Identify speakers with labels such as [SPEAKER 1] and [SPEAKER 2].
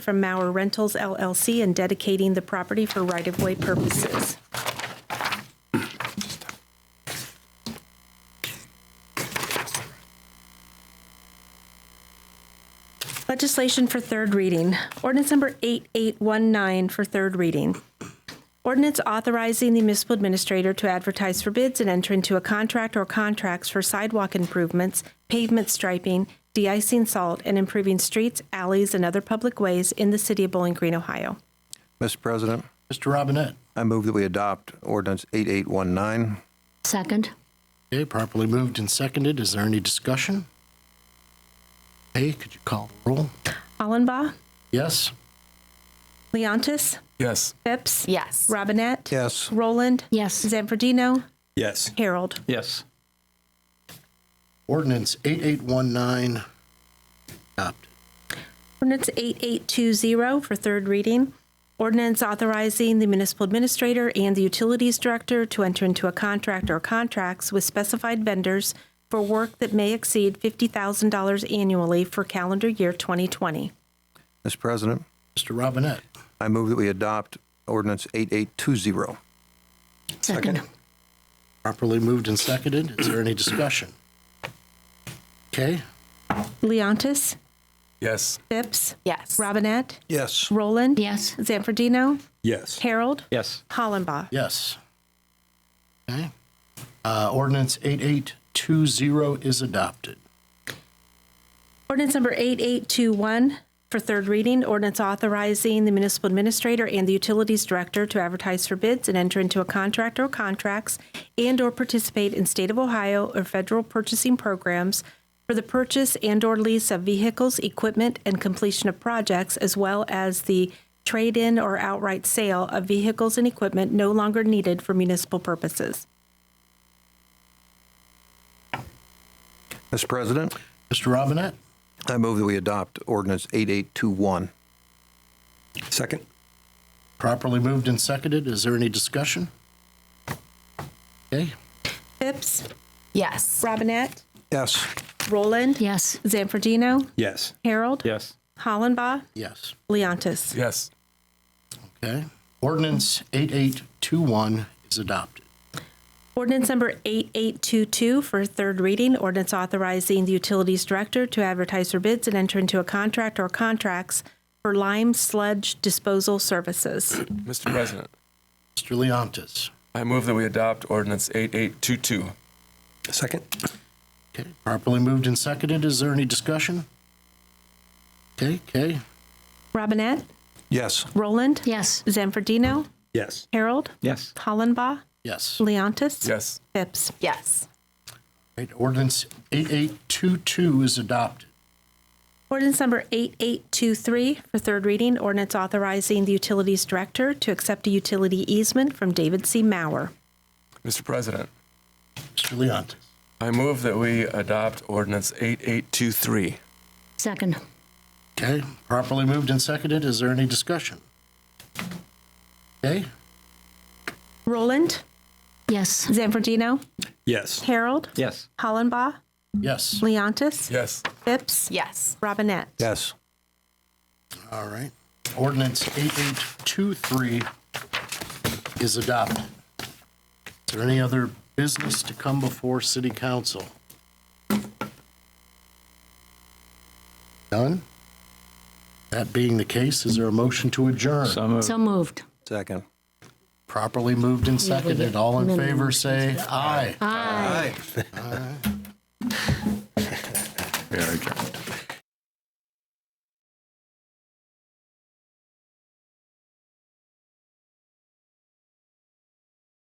[SPEAKER 1] from Mauer Rentals LLC and dedicating the property for right-of-way purposes. Legislation for third reading. Ordinance number 8819 for third reading. Ordinance authorizing the municipal administrator to advertise for bids and enter into a contract or contracts for sidewalk improvements, pavement striping, de-icing salt, and improving streets, alleys, and other public ways in the city of Bowling Green, Ohio.
[SPEAKER 2] Mr. President,
[SPEAKER 3] Mr. Robinette.
[SPEAKER 2] I move that we adopt ordinance 8819.
[SPEAKER 4] Second.
[SPEAKER 3] Okay, properly moved and seconded. Is there any discussion? Hey, could you call the roll?
[SPEAKER 1] Hollenbaugh,
[SPEAKER 3] Yes?
[SPEAKER 1] Leontis,
[SPEAKER 5] Yes.
[SPEAKER 1] Phipps,
[SPEAKER 4] Yes.
[SPEAKER 1] Robinette,
[SPEAKER 2] Yes.
[SPEAKER 1] Roland,
[SPEAKER 4] Yes.
[SPEAKER 1] Zanfordino,
[SPEAKER 5] Yes.
[SPEAKER 1] Harold.
[SPEAKER 5] Yes.
[SPEAKER 3] Ordinance 8819 adopted.
[SPEAKER 1] Ordinance 8820 for third reading. Ordinance authorizing the municipal administrator and the utilities director to enter into a contract or contracts with specified vendors for work that may exceed $50,000 annually for calendar year 2020.
[SPEAKER 2] Mr. President,
[SPEAKER 3] Mr. Robinette.
[SPEAKER 2] I move that we adopt ordinance 8820.
[SPEAKER 4] Second.
[SPEAKER 3] Properly moved and seconded. Is there any discussion? Okay,
[SPEAKER 1] Leontis,
[SPEAKER 5] Yes.
[SPEAKER 1] Phipps,
[SPEAKER 4] Yes.
[SPEAKER 1] Robinette,
[SPEAKER 2] Yes.
[SPEAKER 1] Roland,
[SPEAKER 4] Yes.
[SPEAKER 1] Zanfordino,
[SPEAKER 5] Yes.
[SPEAKER 1] Harold,
[SPEAKER 5] Yes.
[SPEAKER 1] Hollenbaugh.
[SPEAKER 3] yes. Okay. Uh, Ordinance 8820 is adopted.
[SPEAKER 1] Ordinance number 8821 for third reading, ordinance authorizing the municipal administrator and the utilities director to advertise for bids and enter into a contract or contracts and/or participate in state of Ohio or federal purchasing programs for the purchase and/or lease of vehicles, equipment, and completion of projects, as well as the trade-in or outright sale of vehicles and equipment no longer needed for municipal purposes.
[SPEAKER 2] Mr. President,
[SPEAKER 3] Mr. Robinette.
[SPEAKER 2] I move that we adopt ordinance 8821.
[SPEAKER 5] Second.
[SPEAKER 3] Properly moved and seconded. Is there any discussion? Okay,
[SPEAKER 1] Phipps,
[SPEAKER 4] Yes.
[SPEAKER 1] Robinette,
[SPEAKER 2] Yes.
[SPEAKER 1] Roland,
[SPEAKER 4] Yes.
[SPEAKER 1] Zanfordino,
[SPEAKER 5] Yes.
[SPEAKER 1] Harold,
[SPEAKER 5] Yes.
[SPEAKER 1] Hollenbaugh,
[SPEAKER 3] yes.
[SPEAKER 1] Leontis.
[SPEAKER 5] Yes.
[SPEAKER 3] Okay. Ordinance 8821 is adopted.
[SPEAKER 1] Ordinance number 8822 for third reading, ordinance authorizing the utilities director to advertise for bids and enter into a contract or contracts for lime sludge disposal services.
[SPEAKER 6] Mr. President,
[SPEAKER 3] Mr. Leontis.
[SPEAKER 6] I move that we adopt ordinance 8822.
[SPEAKER 5] Second.
[SPEAKER 3] Okay, properly moved and seconded. Is there any discussion? Okay, okay.
[SPEAKER 1] Robinette,
[SPEAKER 2] Yes.
[SPEAKER 1] Roland,
[SPEAKER 4] Yes.
[SPEAKER 1] Zanfordino,
[SPEAKER 5] Yes.
[SPEAKER 1] Harold,
[SPEAKER 5] Yes.
[SPEAKER 1] Hollenbaugh,
[SPEAKER 3] Yes.
[SPEAKER 1] Leontis.
[SPEAKER 6] Yes.
[SPEAKER 1] Phipps.
[SPEAKER 4] Yes.
[SPEAKER 3] Right, ordinance 8822 is adopted.
[SPEAKER 1] Ordinance number 8823 for third reading, ordinance authorizing the utilities director to accept a utility easement from David C. Mauer.
[SPEAKER 6] Mr. President,
[SPEAKER 3] Mr. Leontis.
[SPEAKER 6] I move that we adopt ordinance 8823.
[SPEAKER 4] Second.
[SPEAKER 3] Okay, properly moved and seconded. Is there any discussion? Okay,
[SPEAKER 1] Roland,
[SPEAKER 4] Yes.
[SPEAKER 1] Zanfordino,
[SPEAKER 5] Yes.
[SPEAKER 1] Harold,
[SPEAKER 5] Yes.
[SPEAKER 1] Hollenbaugh,
[SPEAKER 3] yes.
[SPEAKER 1] Leontis,
[SPEAKER 6] Yes.
[SPEAKER 1] Phipps,
[SPEAKER 4] Yes.
[SPEAKER 1] Robinette.
[SPEAKER 2] Yes.
[SPEAKER 3] All right. Ordinance 8823 is adopted. Is there any other business to come before city council? None? That being the case, is there a motion to adjourn?
[SPEAKER 4] So moved.
[SPEAKER 2] Second.
[SPEAKER 3] Properly moved and
[SPEAKER 4] Yeah, we get
[SPEAKER 3] seconded. All in
[SPEAKER 4] minimum
[SPEAKER 3] favor, say aye.
[SPEAKER 4] Aye.
[SPEAKER 2] Aye.
[SPEAKER 5] Very good.